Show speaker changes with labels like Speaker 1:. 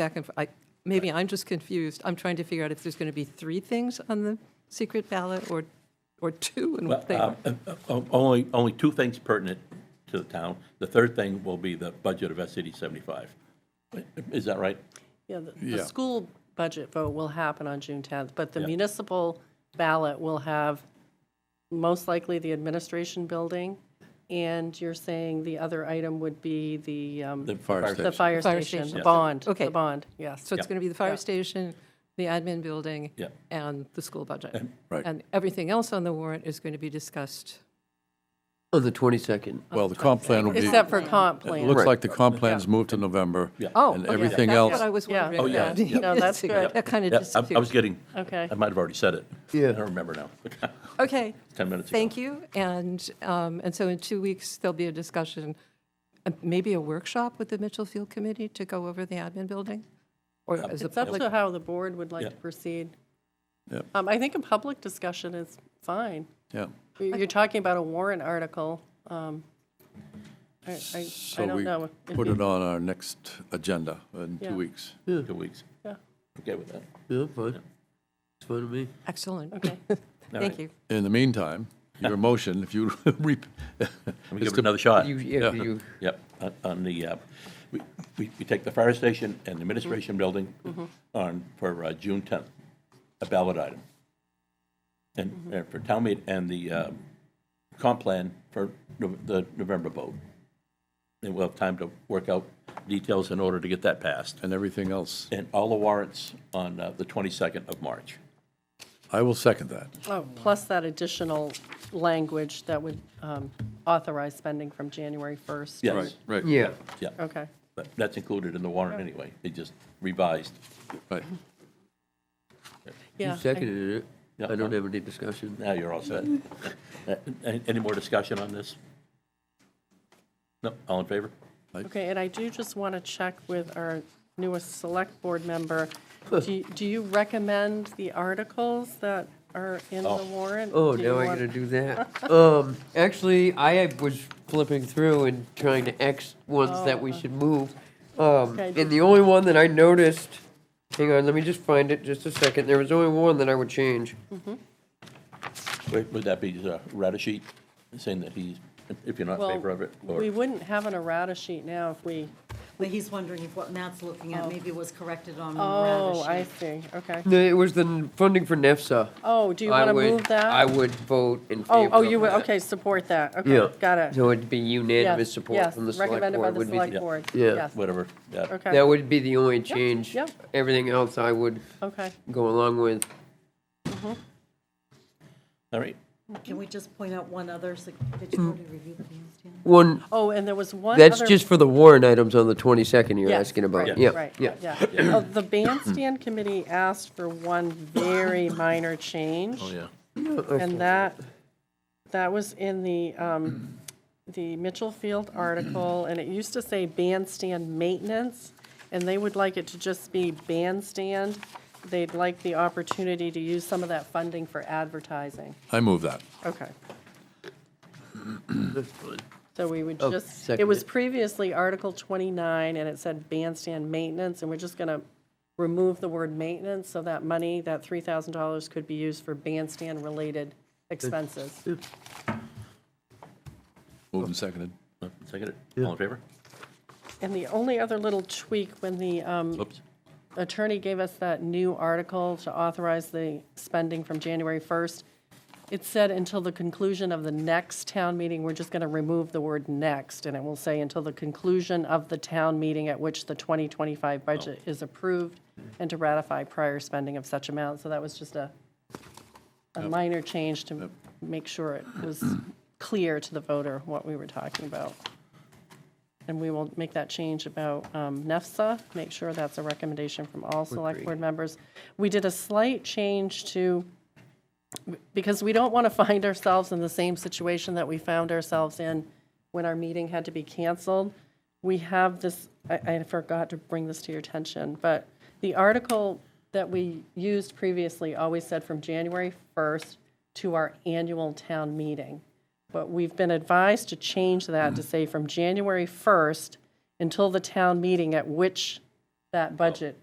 Speaker 1: back and, f- I- maybe I'm just confused. I'm trying to figure out if there's going to be three things on the secret ballot or, or two and what they
Speaker 2: um,
Speaker 1: are.
Speaker 2: uh, O- Only, only two things pertinent to the town. The third thing will be the budget of SCD 75. Is that right?
Speaker 3: Yeah, the,
Speaker 4: Yeah.
Speaker 3: the school budget vote will happen on June 10th, but the
Speaker 2: Yeah.
Speaker 3: municipal ballot will have most likely the administration building, and you're saying the other item would be the, um,
Speaker 2: The
Speaker 4: Fire station.
Speaker 3: the fire
Speaker 1: Fire
Speaker 3: station,
Speaker 1: station.
Speaker 3: the
Speaker 1: Yeah.
Speaker 3: bond,
Speaker 1: Okay.
Speaker 3: the bond, yes.
Speaker 1: So it's going to be the fire
Speaker 3: Yeah.
Speaker 1: station, the admin building,
Speaker 2: Yeah.
Speaker 1: and the school budget.
Speaker 4: Right.
Speaker 1: And everything else on the warrant is going to be discussed.
Speaker 5: Oh, the 22nd.
Speaker 4: Well, the comp plan will be, it
Speaker 3: Except for comp plan.
Speaker 4: looks like the comp plan's moved to November.
Speaker 2: Yeah.
Speaker 1: Oh,
Speaker 4: And
Speaker 1: okay.
Speaker 4: everything
Speaker 1: That's
Speaker 4: else,
Speaker 1: what I was
Speaker 3: Yeah.
Speaker 1: wondering.
Speaker 3: Oh,
Speaker 2: yeah,
Speaker 1: about.
Speaker 2: yeah.
Speaker 3: No, that's good.
Speaker 1: That kind of
Speaker 2: Yeah, I- I was
Speaker 1: disappeared.
Speaker 2: getting,
Speaker 3: Okay.
Speaker 2: I might have already said it.
Speaker 5: Yeah.
Speaker 2: I don't remember now.
Speaker 1: Okay.
Speaker 2: 10 minutes ago.
Speaker 1: Thank you. And, um, and so in two weeks, there'll be a discussion, uh, maybe a workshop with the Mitchell Field Committee to go over the admin building? Or is it
Speaker 3: It's up
Speaker 1: public?
Speaker 3: to how the board would like to
Speaker 2: Yeah.
Speaker 3: proceed.
Speaker 4: Yep.
Speaker 3: Um, I think a public discussion is fine.
Speaker 4: yeah.
Speaker 3: You're you're talking about a warrant article. um, I, I- I
Speaker 4: So
Speaker 3: don't
Speaker 4: we
Speaker 3: know. if
Speaker 4: put
Speaker 3: you-
Speaker 4: it on our next agenda in
Speaker 3: Yeah.
Speaker 4: two weeks.
Speaker 2: Two weeks.
Speaker 3: Yeah.
Speaker 2: Okay with that.
Speaker 5: Yeah, fine. It's fine with me.
Speaker 1: Excellent.
Speaker 3: Okay.
Speaker 1: Thank you.
Speaker 4: In the meantime, your motion, if you, re-
Speaker 2: Let me give it another shot.
Speaker 5: You, yeah, you,
Speaker 2: Yep, on- on the, uh, we, we we take the fire station and the administration building on, for uh, June 10th, a ballot item. And uh, for town meet, and the um, comp plan for Nov- the November vote. And we'll have time to work out details in order to get that passed.
Speaker 4: and everything else.
Speaker 2: And all the warrants on uh, the 22nd of March.
Speaker 4: I will second that.
Speaker 3: Oh, plus that additional language that would um, authorize spending from January 1st.
Speaker 2: Yes,
Speaker 4: Right,
Speaker 5: yeah.
Speaker 2: yeah,
Speaker 3: Okay.
Speaker 2: but that's included in the warrant anyway. They just revised.
Speaker 4: right.
Speaker 3: Yeah.
Speaker 5: You seconded
Speaker 2: Yeah.
Speaker 5: it. I don't have any discussion.
Speaker 2: Now you're all set.
Speaker 3: Mm-hmm.
Speaker 2: Uh, Any any more discussion on this? No, all in favor?
Speaker 3: Okay, and I do just want to check with our newest select board member. Do you- do you recommend the articles that are in the warrant?
Speaker 5: Oh,
Speaker 3: Do you
Speaker 5: now I
Speaker 3: want-
Speaker 5: gotta do that. Um, actually, I was flipping through and trying to X ones that we should move. Um,
Speaker 3: Oh, uh. Okay.
Speaker 5: and the only one that I noticed, hang on, let me just find it just a second. There was only one that I would change.
Speaker 3: Mm-hmm.
Speaker 2: Would would that be the Radisheet saying that he's, if you're not in
Speaker 3: Well,
Speaker 2: favor of it? or-
Speaker 3: We wouldn't have an errata sheet now if we,
Speaker 6: But he's wondering if what Matt's looking at maybe was corrected on the
Speaker 3: oh, I
Speaker 6: Radish.
Speaker 3: see, okay.
Speaker 5: No, It was the n- funding for NEFSA.
Speaker 3: Oh, do you
Speaker 5: I
Speaker 3: want to
Speaker 5: would-
Speaker 3: move that?
Speaker 5: I would vote in favor
Speaker 3: Oh,
Speaker 5: of
Speaker 3: oh, you, would-
Speaker 5: that.
Speaker 3: okay, support that,
Speaker 5: Yeah.
Speaker 3: okay, got it.
Speaker 5: So it'd be unanimous
Speaker 3: Yes,
Speaker 5: support from the select
Speaker 3: Yes,
Speaker 5: board.
Speaker 3: recommended by
Speaker 5: would
Speaker 3: the
Speaker 5: be
Speaker 3: select
Speaker 5: the-
Speaker 3: board.
Speaker 5: Yeah.
Speaker 3: Yes,
Speaker 2: Whatever, yeah.
Speaker 3: Okay.
Speaker 5: That would be the only change.
Speaker 3: yep.
Speaker 5: Everything else I would
Speaker 3: Okay,
Speaker 5: go along with.
Speaker 2: All right,
Speaker 6: Can we just point out one other, sig- did you already review the plans, Dan?
Speaker 5: One,
Speaker 3: oh, and there was one other.
Speaker 5: that's just for the warrant items on the 22nd you're
Speaker 3: Yes,
Speaker 5: asking about.
Speaker 3: right,
Speaker 5: Yeah,
Speaker 3: right,
Speaker 5: yeah.
Speaker 3: yeah. Oh, The bandstand committee asked for one very minor change,
Speaker 5: Oh,
Speaker 2: yeah.
Speaker 3: and that, that was in the, um, the Mitchell Field article, and it used to say bandstand maintenance, and they would like it to just be bandstand. They'd like the opportunity to use some of that funding for advertising.
Speaker 4: I move that.
Speaker 3: Okay. So we would
Speaker 5: Oh,
Speaker 3: just, it
Speaker 5: second
Speaker 3: was
Speaker 5: it.
Speaker 3: previously Article 29, and it said bandstand maintenance, and we're just going to remove the word maintenance, so that money, that $3,000 could be used for bandstand-related expenses.
Speaker 4: Moved and seconded.
Speaker 2: Second it, all in favor?
Speaker 3: And the only other little tweak, when the um,
Speaker 2: Oops.
Speaker 3: attorney gave us that new article to authorize the spending from January 1st, it said until the conclusion of the next town meeting, we're just going to remove the word next, and it will say until the conclusion of the town meeting at which the 2025 budget is approved, and to ratify prior spending of such amount. So that was just a, a minor change to make sure it was clear to the voter what we were talking about. And we will make that change about um, NEFSA, make sure that's a recommendation from all select board members. We did a slight change to, because we don't want to find ourselves in the same situation that we found ourselves in when our meeting had to be canceled. We have this, I, I forgot to bring this to your attention, but the article that we used previously always said from January 1st to our annual town meeting. But we've been advised to change that to say from January 1st until the town meeting at which that budget